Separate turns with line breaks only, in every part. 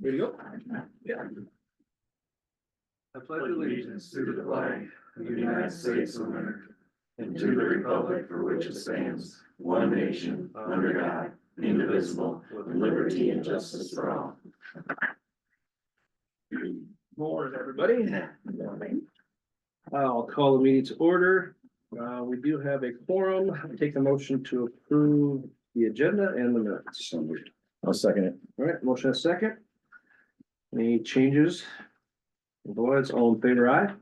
There you go. Yeah.
I pledge allegiance to the flag of the United States of America and to the republic for which it stands, one nation, under God, indivisible, with liberty and justice for all.
Morning, everybody. I'll call the meeting to order. Uh, we do have a quorum. I Take the motion to approve the agenda and the minutes.
I'll second it.
All right, motion a second. Any changes? Boards, all in favor, aye?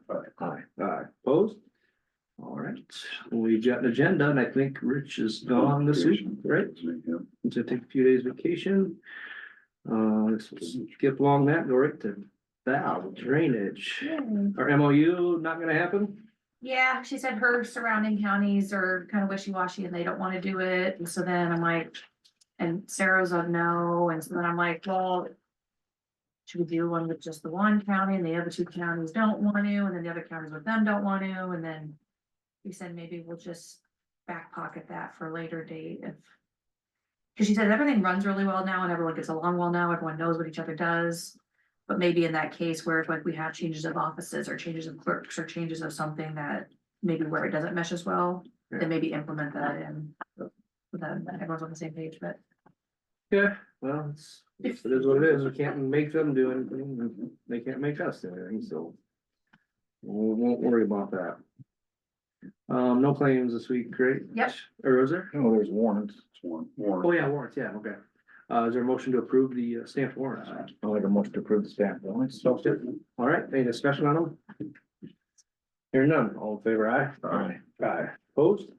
Aye. Aye, opposed? All right, we've got an agenda and I think Rich is gone this week, right? to take a few days vacation. Uh, let's skip along that, go right to valve drainage. Our MOU not gonna happen?
Hmm. Yeah, she said her surrounding counties are kind of wishy-washy and they don't want to do it. And so then I'm like, and Sarah's a no. And so then I'm like, well, should we do one with just the one county and the other two counties don't want to, and then the other counties with them don't want to, and then we said maybe we'll just back pocket that for a later date if because she said everything runs really well now and everyone gets along well now, everyone knows what each other does. But maybe in that case where it's like we have changes of offices or changes of clerks or changes of something that maybe where it doesn't mesh as well,
Yeah.
then maybe implement that in. so Then everyone's on the same page, but
Yeah, well, it's, it is what it is. We can't make them do anything. They can't make us do anything, so. We won't worry about that. Um, no claims this week, great.
Yep.
Or is there?
No, Oh, there's warrants. It's warrant.
Oh, yeah, warrants, yeah, okay. Uh, is there a motion to approve the uh, stamped warrants?
I'll make a motion to approve the staff warrants.
So, all right, any discussion on them? Hearing none, all in favor, aye?
Aye.
Aye. Opposed?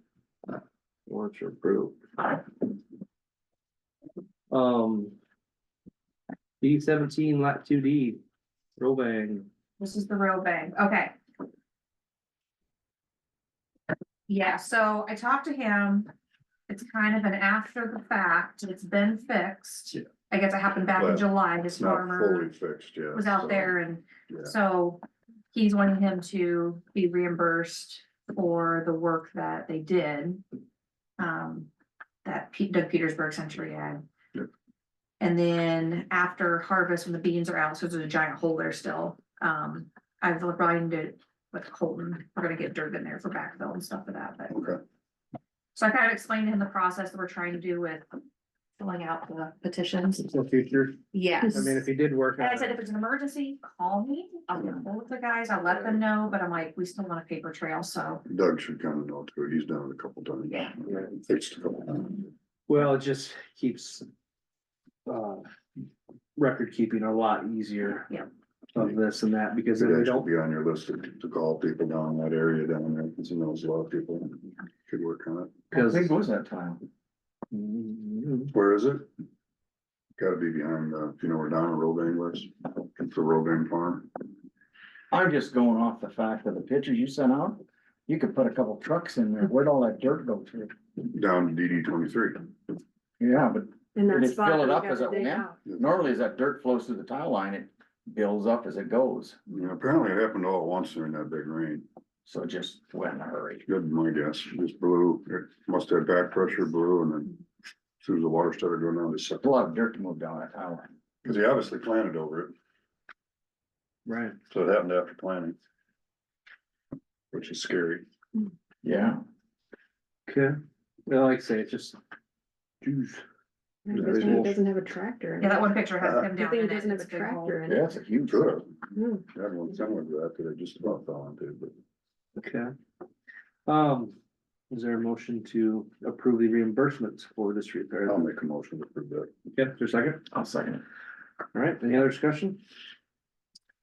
Warrants are approved. Um. D seventeen lot two D, Robang,
This is the real bang, okay. Yeah, so I talked to him. It's kind of an after the fact, it's been fixed.
Yeah.
I guess it happened back in
Well,
July, his
It's not fully
farmer
fixed yet.
was out
so,
there and
yeah.
so he's wanting him to be reimbursed for the work that they did. Um, that Pete Doug Petersburg Century ad.
Yep.
And then after harvest, when the beans are out, so there's a giant hole there still, um, I've lined it with Colton, we're gonna get dirt in there for backfill and stuff for that, but.
Okay.
So I kind of explained to him the process that we're trying to do with filling out the petitions.
it's the future,
Yes.
I mean, if he did work
And I
on
said,
it,
if it's an emergency, call me, I'll get hold of the guys, I'll let them know, but I'm like, we still want a paper trail, so.
Doug should kind of know too. He's done it a couple times.
Yeah.
Fixed a couple times.
well, it just keeps. Uh, record keeping a lot easier.
Yeah.
Of this and that, because
It
then we
should
don't,
be on your list to, to call people down in that area down there, because he knows a lot of people. Could work on it.
because.
How big was that time?
Mm,
Where is it? Gotta be behind, uh, you know, where Donna Robain was, it's the Robain farm.
I'm just going off the fact of the pictures you sent out. You could put a couple trucks in there. Where'd all that dirt go to?
down to DD twenty-three.
Yeah, but
And
Did
that
it fill
spot
it
that
up
we got
as
the
it
day
went in?
out.
normally as that dirt flows through the tile line, it builds up as it goes.
You know, apparently it happened all at once during that big rain.
So it just went in a hurry.
Good, my guess, It just blew, it must have back pressure blew and then as soon as the water started going down, it sucked.
A lot of dirt to move down that tile line.
Cause he obviously planted over it.
Right.
So it happened after planning. Which is scary.
Yeah.
Okay, well, like I say, it's just. Jeez.
And
Yeah,
this
they
one
will.
doesn't have a tractor. in
Yeah,
it.
that one picture
Uh,
has him
The
down
thing
in it.
doesn't have
it's
a
a big hole.
tractor in
Yeah,
it.
it's a huge.
Could have,
No.
had one similar to that, that I just about fell into, but
Okay. Um, is there a motion to approve the reimbursements for this repair?
I'll make a motion to approve that.
Okay, is there a second?
I'll second it.
All right, any other discussion?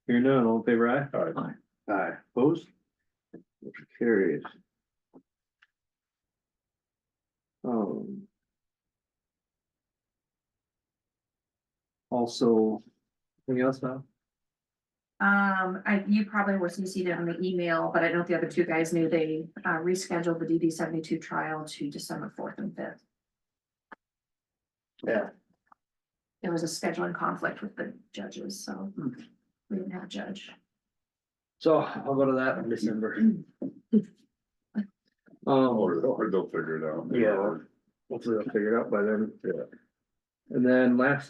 Hearing none, all in favor, aye?
All right.
Aye, opposed? Motion carries. Um. Also, anything else now?
Um, I, you probably were CC'd on the email, but I don't know if the other two guys knew they uh rescheduled the DD seventy-two trial to December fourth and fifth.
Yeah.
There was a scheduling conflict with the judges, so we didn't have a judge.
So I'll go to that in December. Um,
Or, or they'll figure it out.
Yeah. hopefully I'll figure it out by then.
Yeah.
And then last